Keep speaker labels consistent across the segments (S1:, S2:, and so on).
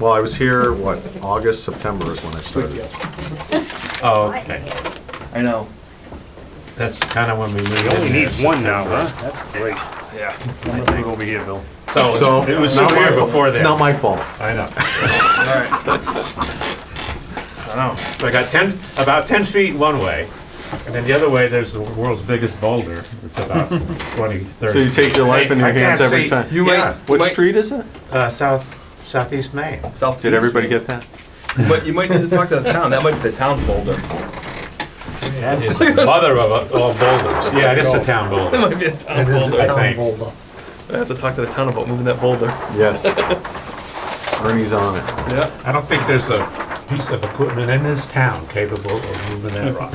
S1: Well, I was here, what, August, September is when I started.
S2: Oh, okay.
S3: I know.
S2: That's kind of when we moved
S4: You only
S2: in
S4: need
S2: there.
S4: one now, huh? That's great.
S3: Yeah.
S4: I'm gonna move over here, Bill.
S2: So it was
S1: not my
S2: severe
S1: fault.
S2: before
S1: It's not
S2: then.
S1: my fault.
S2: I know.
S3: All right. So now,
S2: So I got 10, about 10 feet one way, and then the other way, there's the world's biggest boulder. It's about 20, 30.
S1: So you take your life in your
S2: I can't
S1: hands every
S2: see.
S1: time.
S2: You
S3: Yeah.
S2: might-
S1: What
S3: might-
S1: street is it?
S2: Uh, south, southeast Maine.
S3: South.
S1: Did everybody get that?
S3: But you might need to talk to the town. That might be the town folder.
S2: That is the mother of uh, all boulders. Yeah, it is a town
S3: That
S2: boulder.
S3: might be a town
S5: It is
S3: folder.
S5: a town
S2: think.
S5: boulder.
S3: I have to talk to the town about moving that boulder.
S1: Yes. Ernie's on it.
S3: Yeah.
S2: I don't think there's a piece of equipment in this town capable of moving that rock.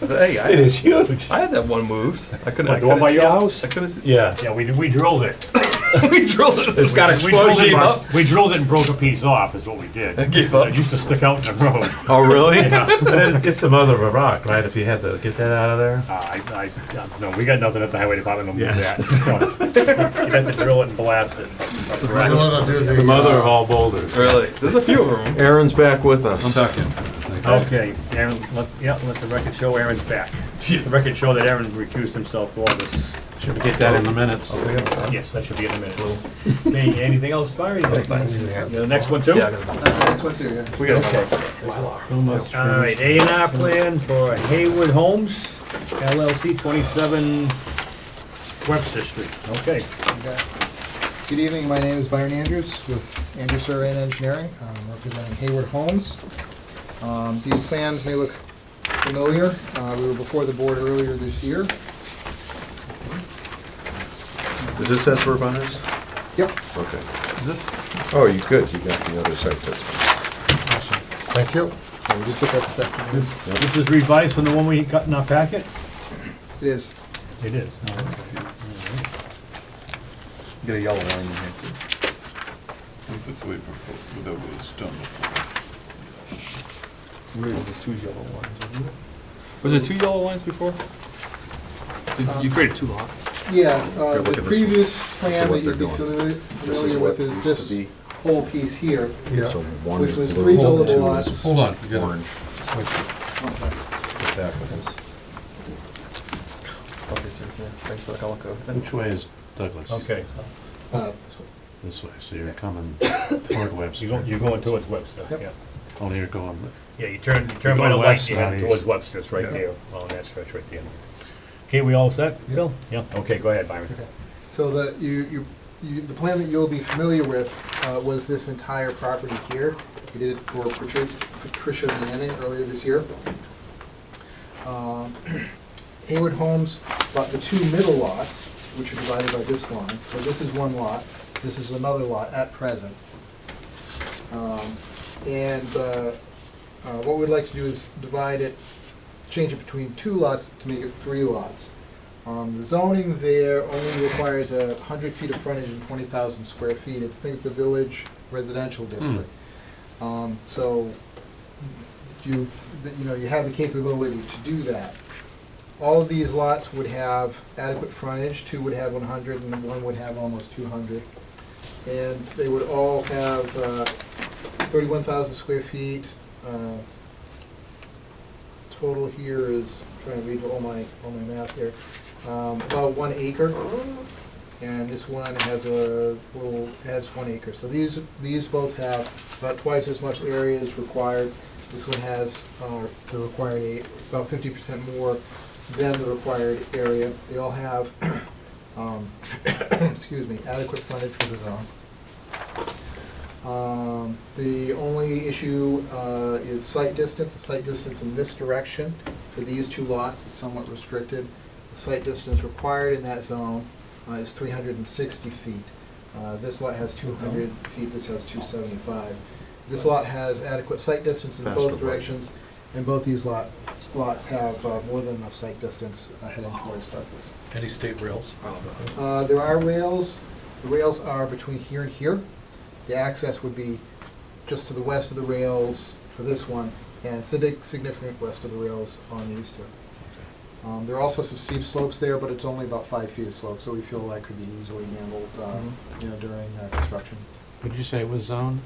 S3: Hey,
S2: It
S3: I,
S2: is huge.
S3: I had that one moved. I couldn't. I
S4: What, the one
S3: couldn't
S4: by
S3: see
S4: your
S3: it.
S4: house?
S3: I couldn't. See.
S2: Yeah.
S4: Yeah, we, we drilled it.
S3: we drilled it. It's got
S4: We drilled it,
S3: up.
S4: we drilled it and broke a piece off, is what we did.
S3: Give up.
S4: It used to stick out in the road.
S1: Oh, really?
S2: It's the mother of a rock, right, if you had to get that out of there?
S4: Uh, I, I, no, we got nothing at the highway department to move
S2: Yes.
S4: that. So, You'd have to drill it and blast it.
S5: We're gonna do
S2: The mother of
S5: uh,
S2: all boulders.
S3: Really? There's a few of them.
S1: Aaron's back with us.
S4: Okay, Aaron, let, yeah, let the record show Aaron's back. The record show that Aaron recused himself for all this.
S2: Should we get that in the minutes?
S4: Yes, that should be in a minute. Hey, anything else, Barry? The next one too?
S3: We got. Okay.
S4: All right, A and R plan for Haywood Homes LLC, twenty-seven Webster Street. Okay,
S5: Good evening, my name is Byron Andrews with Andrews Survey and Engineering, I'm representing Hayward Homes. Um, These plans may look familiar, Uh, we were before the board earlier this year.
S1: Is this as we're on this?
S5: Yep,
S1: Okay.
S3: Is this?
S1: Oh, you good. You got the other side this one.
S5: awesome, thank you. Yeah, We just took that second.
S4: this, this is revised from the one we got in our packet?
S5: It is,
S4: It is.
S3: Get a yellow line in here too.
S6: That's the way it proposed, that was done before.
S3: It's weird. There's two yellow lines. Isn't it? Was there two yellow lines before? You- You created two lots.
S5: yeah,
S1: look
S5: uh, the
S1: at this one.
S5: previous
S1: is
S5: plan
S1: what
S5: that you'd
S1: they're doing.
S5: be familiar
S1: This is
S5: familiar
S1: what
S5: with is
S1: used to be.
S5: this whole piece here,
S1: So
S5: which
S1: one is
S5: was
S1: blue,
S5: three
S1: two
S5: buildable
S1: is
S5: lots.
S6: Hold on, you gotta,
S1: Orange.
S6: just wait.
S5: Oh, sorry.
S6: Get back with
S3: Okay, sir. Yeah. Thanks for the color code.
S2: Which way is Douglas?
S4: Okay,
S5: Uh,
S2: This way, so you're coming toward
S4: so you're
S2: Webster. Oh,
S4: going, you're going towards Webster, yeah.
S2: Only you're going,
S4: Yeah, you turn, you turn by
S2: You're going
S4: the light,
S2: west,
S4: you
S2: not
S4: head
S2: east.
S4: towards Webster, it's right
S5: Yeah.
S4: there, on that stretch right there. Okay, we all set, Bill? Yeah, okay, go ahead, Byron.
S5: So the, you, you, you, the plan that you'll be familiar with, uh, was this entire property here. We did it for Patricia, Patricia Manning earlier this year. Um, Hayward Homes bought the two middle lots, which are divided by this line, so this is one lot, this is another lot at present. Um, And, uh, uh, what we'd like to do is divide it, change it between two lots to make it three lots. Um, the zoning there only requires a hundred feet of frontage and twenty thousand square feet. It's, I think it's a village residential district. Um, so you, that, you know, you have the capability to do that. All of these lots would have adequate frontage, two would have one hundred and one would have almost two hundred. And they would all have, uh, thirty-one thousand square feet. Uh, Total here is, trying to read all my, all my math here, um, about one acre. And this one has a little, has one acre. So these, these both have about twice as much area as required. This one has, uh, the required, a- about fifty percent more than the required area. They all have, um, excuse me, adequate frontage for the zone. Um, The only issue uh, is sight distance. The sight distance in this direction for these two lots is somewhat restricted. The sight distance required in that zone uh, is 360 feet. Uh, This lot has 200 feet, this has 275. This lot has adequate sight distance in both
S1: Faster way.
S5: directions, and both these lot- lots have uh, more than enough sight distance uh, heading towards Douglas.
S6: it. Any state rails?
S5: Uh, There are rails, the rails are between here and here. The access would be just to the west of the rails for this one, and sig- significant west of the rails on these two. Um, There are also some steep slopes there, but it's only about five feet of slope, so we feel that could be easily handled, uh, you know, during uh, construction.
S2: would you say it was zoned?